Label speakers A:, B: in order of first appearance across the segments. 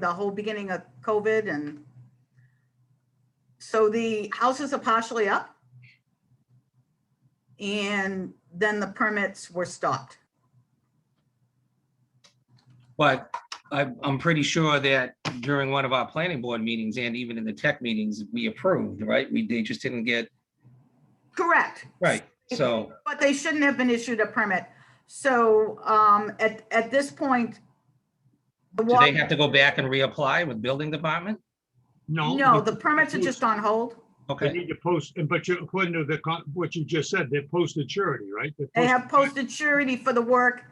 A: the whole beginning of COVID and so the houses are partially up. And then the permits were stopped.
B: But I'm, I'm pretty sure that during one of our planning board meetings and even in the tech meetings, we approved, right? We, they just didn't get,
A: Correct.
B: right, so,
A: But they shouldn't have been issued a permit. So um, at, at this point, the
B: do
A: wa-
B: they have to go back and reapply with building department?
C: No.
A: no,
C: but
A: the permits are just on hold.
C: They
B: Okay,
C: need to post, and but you, according to the, con- what you just said, they're posted surety, right? They're
A: They have
C: posted-
A: posted surety for the work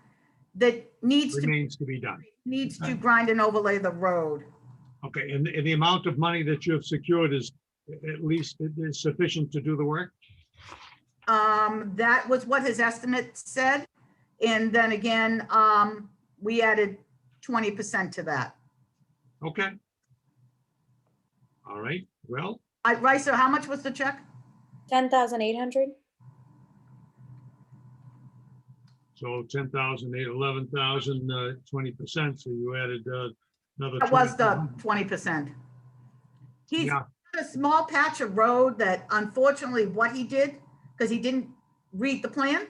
A: that needs to,
C: Remains to be done.
A: needs to grind and overlay the road.
C: Okay, and, and the amount of money that you have secured is at least it is sufficient to do the work?
A: Um, that was what his estimate said. And then again, um, we added twenty percent to that.
C: Okay. All right, well,
A: I, Rice, how much was the check?
D: Ten thousand eight hundred?
C: so 10,000, eight- 11,000, uh, 20%, so you added uh, another.
A: That was the
C: 20,000.
A: twenty percent. He's
C: Yeah,
A: got a small patch of road that unfortunately what he did, because he didn't read the plan,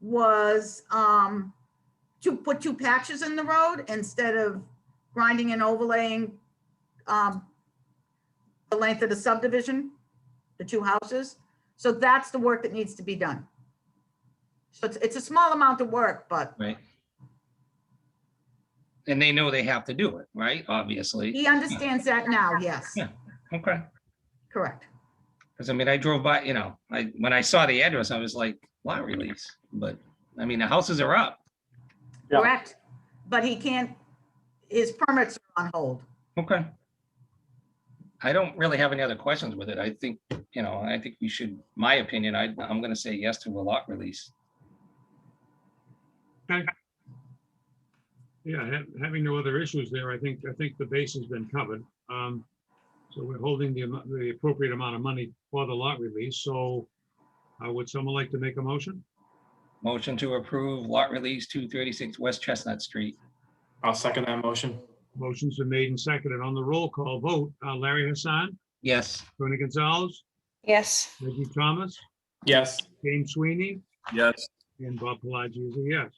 A: was, um, to put two patches in the road instead of grinding and overlaying, um, the length of the subdivision, the two houses. So that's the work that needs to be done. So it's, it's a small amount of work, but
B: right. And they know they have to do it, right? Obviously.
A: he understands that now, yes,
B: Yeah. Okay.
A: correct.
B: Because I mean, I drove by, you know, I, when I saw the address, I was like, lot release. But I mean, the houses are up.
E: Yeah.
A: Correct, but he can't, his permits are on hold.
B: Okay. I don't really have any other questions with it. I think, you know, I think we should, my opinion, I, I'm gonna say yes to a lot release.
C: yeah, ha- having no other issues there, I think, I think the base has been covered. Um, So we're holding the, amo- the appropriate amount of money for the lot release, so uh, would someone like to make a motion?
B: Motion to approve lot release two thirty-six West Chestnut Street.
E: I'll second that motion.
C: Motions are made and seconded on the roll call vote. uh, Larry Hassan,
B: Yes,
C: Tony Gonzalez,
D: Yes.
C: Reggie Thomas,
E: Yes.
C: James Sweeney,
E: Yes.
C: And Bob Pelagi is a yes.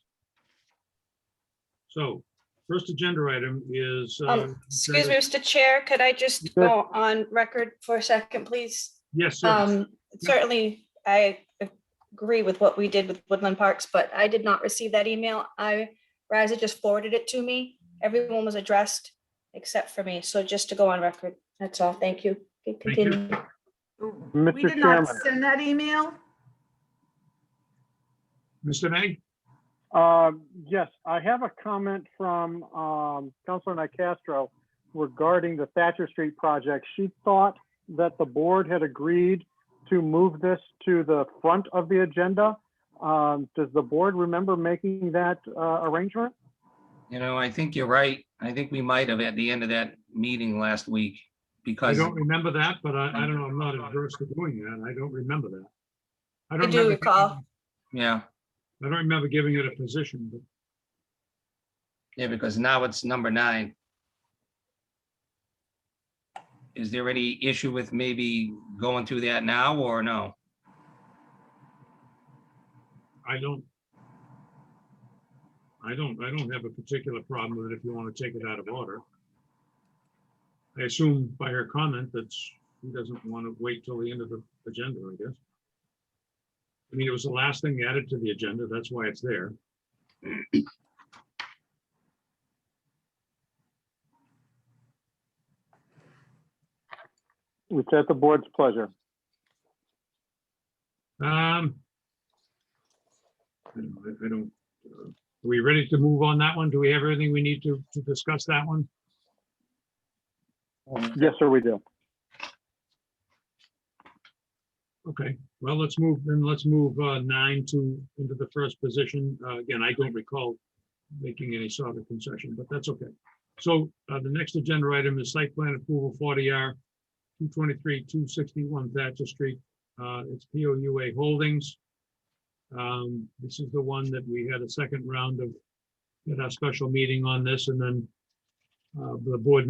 C: So first agenda item is, uh,
F: Um, Excuse me, Mr. Chair, could I just go on record for a second, please?
C: yes, sir.
F: Um, certainly, I agree with what we did with Woodland Parks, but I did not receive that email. I, Riza just forwarded it to me. Everyone was addressed except for me. So just to go on record, that's all. Thank you.
C: Thank you.
F: Continue.
A: We
E: Mr.
A: did not
E: Chairman.
A: send that email.
C: Mr. May,
E: Um, Yes, I have a comment from um, Councilor Nicastro regarding the Thatcher Street project. She thought that the board had agreed to move this to the front of the agenda. Um, Does the board remember making that uh, arrangement?
B: you know, I think you're right. I think we might have at the end of that meeting last week
C: I
B: because,
C: don't remember that, but I, I don't know, I'm not adverse to doing that. I don't remember that. I
F: I
C: don't
F: do
C: remember,
F: recall.
B: yeah,
C: I don't remember giving it a position, but
B: yeah, because now it's number nine. Is there any issue with maybe going through that now or no?
C: I don't. I don't, I don't have a particular problem with it if you want to take it out of order. I assume by her comment that she doesn't want to wait till the end of the agenda, I guess. I mean, it was the last thing added to the agenda. That's why it's there.
E: It's at the board's pleasure.
C: Um. I don't- I don't, uh, are we ready to move on that one? Do we have everything we need to, to discuss that one?
E: Yes, sir, we do.
C: Okay, well, let's move, then let's move uh, nine to, into the first position. Uh, Again, I don't recall making any sort of concession, but that's okay. So uh, the next agenda item is site plan approval forty R, two twenty-three, two sixty-one Thatcher Street. Uh, It's P O U A Holdings. Um, This is the one that we had a second round of, at our special meeting on this, and then uh, the board